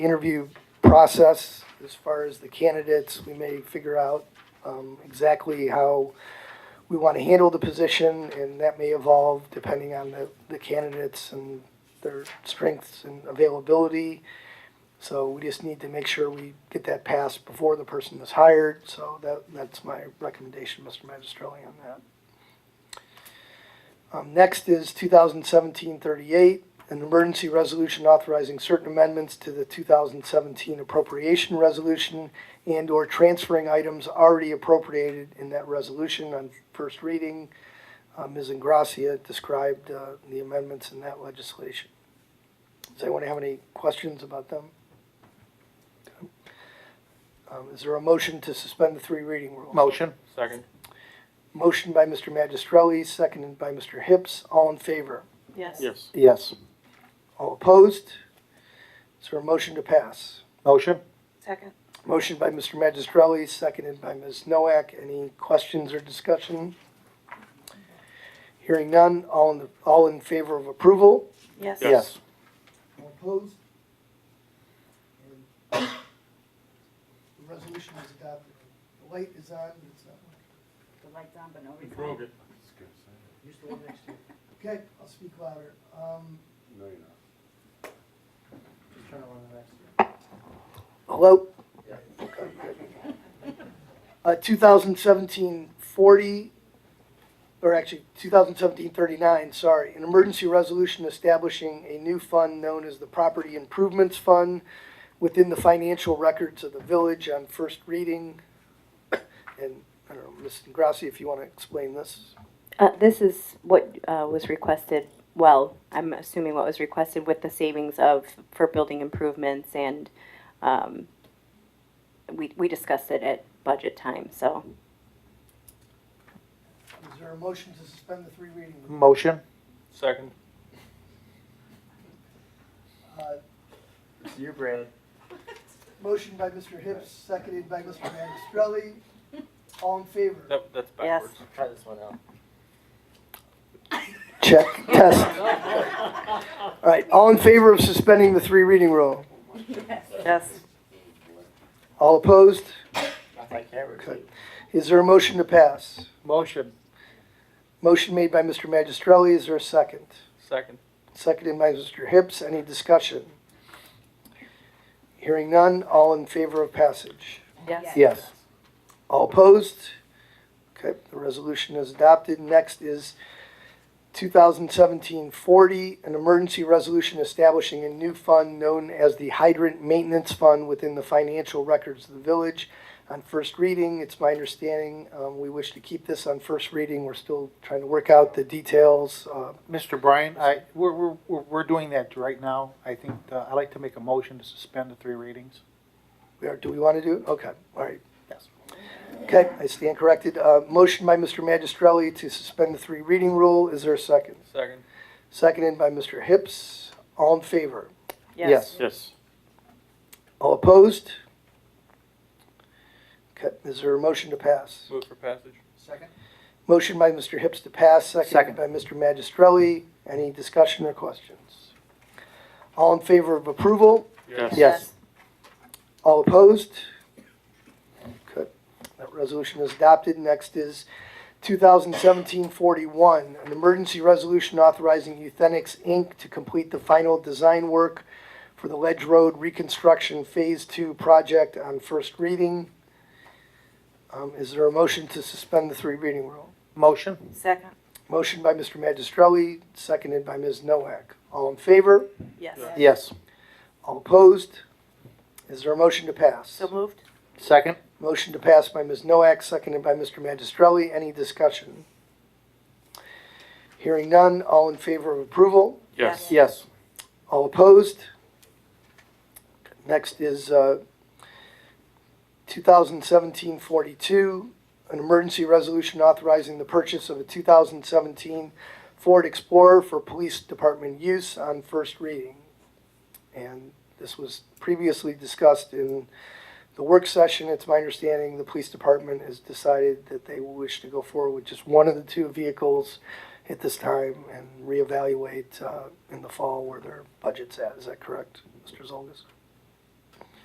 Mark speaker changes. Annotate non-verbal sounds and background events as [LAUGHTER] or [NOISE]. Speaker 1: interview process as far as the candidates. We may figure out um, exactly how we want to handle the position, and that may evolve depending on the, the candidates and their strengths and availability. So we just need to make sure we get that passed before the person is hired, so that, that's my recommendation, Mr. Magistrelli, on that. Um, next is 2017-38, an emergency resolution authorizing certain amendments to the two thousand seventeen appropriation resolution and/or transferring items already appropriated in that resolution on first reading. Uh, Ms. Ingracia described, uh, the amendments in that legislation. Does anyone have any questions about them? Um, is there a motion to suspend the three reading rule?
Speaker 2: Motion.
Speaker 3: Second.
Speaker 1: Motion by Mr. Magistrelli, seconded by Mr. Hips. All in favor?
Speaker 4: Yes.
Speaker 3: Yes.
Speaker 2: Yes.
Speaker 1: All opposed? Is there a motion to pass?
Speaker 2: Motion.
Speaker 4: Second.
Speaker 1: Motion by Mr. Magistrelli, seconded by Ms. Noack. Any questions or discussion? Hearing none, all in, all in favor of approval?
Speaker 4: Yes.
Speaker 2: Yes.
Speaker 1: All opposed? And The resolution is adopted. The light is on, but it's not working.
Speaker 5: The light's on, but no
Speaker 3: You
Speaker 5: reflection.
Speaker 3: broke it.
Speaker 5: Use the one next to you.
Speaker 1: Okay, I'll speak louder. Um,
Speaker 6: No, you're not.
Speaker 1: Just trying to run the next. Hello? Okay, good. Uh, 2017-40, or actually 2017-39, sorry, an emergency resolution establishing a new fund known as the Property Improvements Fund within the financial records of the village on first reading. [COUGHS] And, I don't know, Ms. Ingrassi, if you want to explain this.
Speaker 7: Uh, This is what uh, was requested, well, I'm assuming what was requested with the savings of, for building improvements and um, we we discussed it at budget time, so.
Speaker 1: Is there a motion to suspend the three reading rule?
Speaker 2: Motion.
Speaker 3: Second.
Speaker 1: Uh,
Speaker 2: It's your brand.
Speaker 1: Motion by Mr. Hips, seconded by Mr. Magistrelli. All in favor?
Speaker 3: That, that's
Speaker 4: Yes.
Speaker 3: backwards.
Speaker 2: Try this one out.
Speaker 1: Check, test. All right, all in favor of suspending the three reading rule?
Speaker 4: Yes.
Speaker 1: All opposed?
Speaker 2: I think everything.
Speaker 1: Good. Is there a motion to pass?
Speaker 2: Motion.
Speaker 1: Motion made by Mr. Magistrelli, is there a second?
Speaker 3: Second.
Speaker 1: Seconded by Mr. Hips, any discussion? Hearing none, all in favor of passage?
Speaker 4: Yes.
Speaker 2: Yes.
Speaker 1: All opposed? Okay, the resolution is adopted. Next is 2017-40, an emergency resolution establishing a new fund known as the Hydrant Maintenance Fund within the financial records of the village. On first reading, it's my understanding, um, we wish to keep this on first reading. We're still trying to work out the details. Uh,
Speaker 2: Mr. Bryan, I, we're, we're, we're we're doing that right now. I think, uh, I'd like to make a motion to suspend the three readings.
Speaker 1: we are- Do we want to do it? Okay, all right.
Speaker 2: Yes.
Speaker 1: Okay, I stand corrected. Uh, Motion by Mr. Magistrelli to suspend the three reading rule. Is there a second?
Speaker 3: Second.
Speaker 1: Seconded by Mr. Hips. All in favor?
Speaker 2: Yes.
Speaker 3: Yes.
Speaker 1: All opposed? Okay, is there a motion to pass?
Speaker 3: Move for passage.
Speaker 2: Second.
Speaker 1: Motion by Mr. Hips to pass, seconded
Speaker 2: Second.
Speaker 1: by Mr. Magistrelli. Any discussion or questions? All in favor of approval?
Speaker 2: Yes.
Speaker 1: All opposed? Good. That resolution is adopted. Next is 2017-41, an emergency resolution authorizing Euthenix Inc. to complete the final design work for the Ledge Road Reconstruction Phase 2 project on first reading. Um, Is there a motion to suspend the three reading rule?
Speaker 2: Motion.
Speaker 4: Second.
Speaker 1: Motion by Mr. Magistrelli, seconded by Ms. Nowak. All in favor?
Speaker 4: Yes.
Speaker 2: Yes.
Speaker 1: All opposed? Is there a motion to pass?
Speaker 4: So moved?
Speaker 2: Second.
Speaker 1: Motion to pass by Ms. Noack, seconded by Mr. Magistrelli. Any discussion? Hearing none, all in favor of approval?
Speaker 3: Yes.
Speaker 2: Yes.
Speaker 1: All opposed? Next is uh, 2017-42, an emergency resolution authorizing the purchase of a 2017 Ford Explorer for police department use on first reading. And this was previously discussed in the work session. It's my understanding the police department has decided that they wish to go forward with just one of the two vehicles at this time and reevaluate uh, in the fall where their budget's at. Is that correct, Mr. Zolgis?